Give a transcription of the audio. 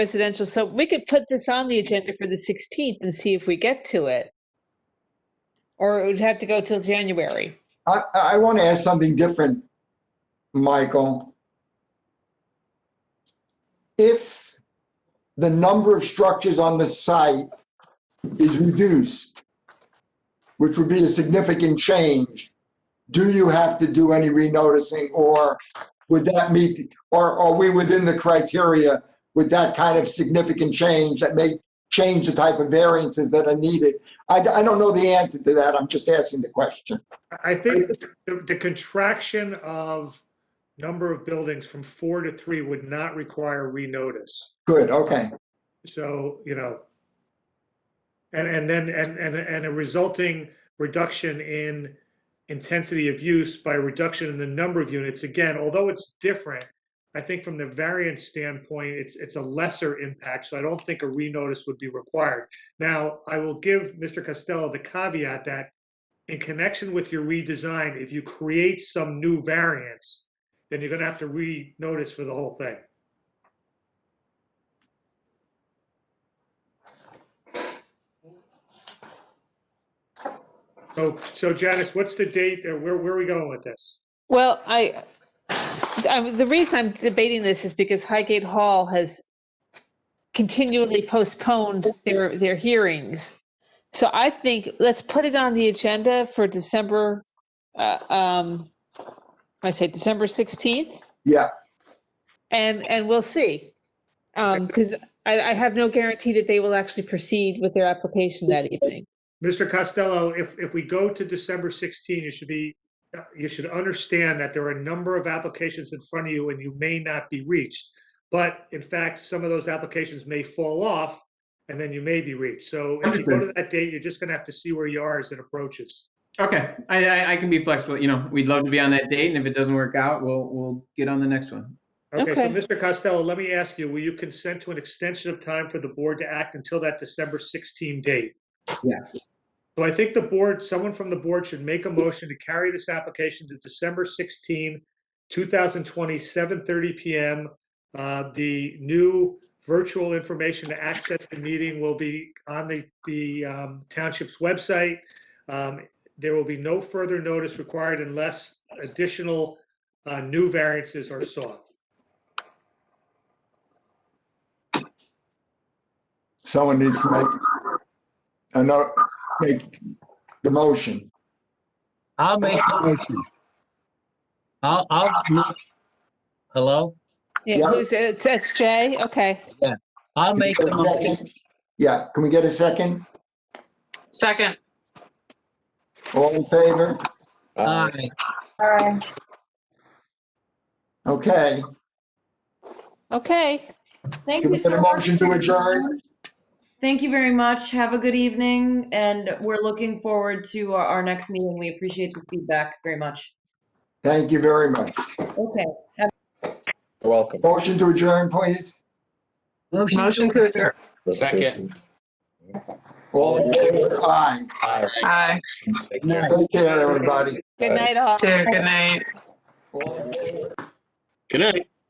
residential, so we could put this on the agenda for the sixteenth and see if we get to it. Or it would have to go till January. I, I want to ask something different, Michael. If the number of structures on the site is reduced, which would be a significant change, do you have to do any renoticing or would that meet, or are we within the criteria with that kind of significant change that may change the type of variances that are needed? I, I don't know the answer to that. I'm just asking the question. I think the the contraction of number of buildings from four to three would not require renotice. Good, okay. So, you know, and, and then, and, and, and a resulting reduction in intensity of use by reduction in the number of units. Again, although it's different, I think from the variance standpoint, it's, it's a lesser impact, so I don't think a renotice would be required. Now, I will give Mr. Costello the caveat that in connection with your redesign, if you create some new variance, then you're gonna have to re-notice for the whole thing. So, so Janice, what's the date, or where, where are we going with this? Well, I, I'm, the reason I'm debating this is because Highgate Hall has continually postponed their, their hearings. So I think, let's put it on the agenda for December, uh, um, I say December sixteenth. Yeah, And, and we'll see. Um, because I, I have no guarantee that they will actually proceed with their application that evening. Mr. Costello, if, if we go to December 16, you should be, you should understand that there are a number of applications in front of you and you may not be reached. But in fact, some of those applications may fall off and then you may be reached. So if you go to that date, you're just going to have to see where you are as it approaches. Okay, I, I, I can be flexible, you know, we'd love to be on that date, and if it doesn't work out, we'll, we'll get on the next one. Okay, so Okay. Mr. Costello, let me ask you, will you consent to an extension of time for the board to act until that December 16 date? Yeah. So I think the board, someone from the board should make a motion to carry this application to December 16, 2020, 7:30 PM. Uh, The new virtual information to access the meeting will be on the, the um, township's website. Um, There will be no further notice required unless additional uh, new variances are sought. someone needs to make, I know, make the motion. I'll make the motion. I'll, I'll, mo- hello? Yeah, Yeah. who's, uh, that's Jay, okay. I'll make the motion. Yeah, can we get a second? Second. All in favor? Aye. Okay. Okay, Thank Can you we get so a much. motion to adjourn? Thank you very much. Have a good evening, and we're looking forward to our, our next meeting. We appreciate the feedback very much. Thank you very much. Okay. Welcome. Motion to adjourn, please. Motion to adjourn. Second. All in favor? Aye. Hi. Aye. Thanks, Mary. Take care, everybody. good night all. Good night. All in favor? Good night.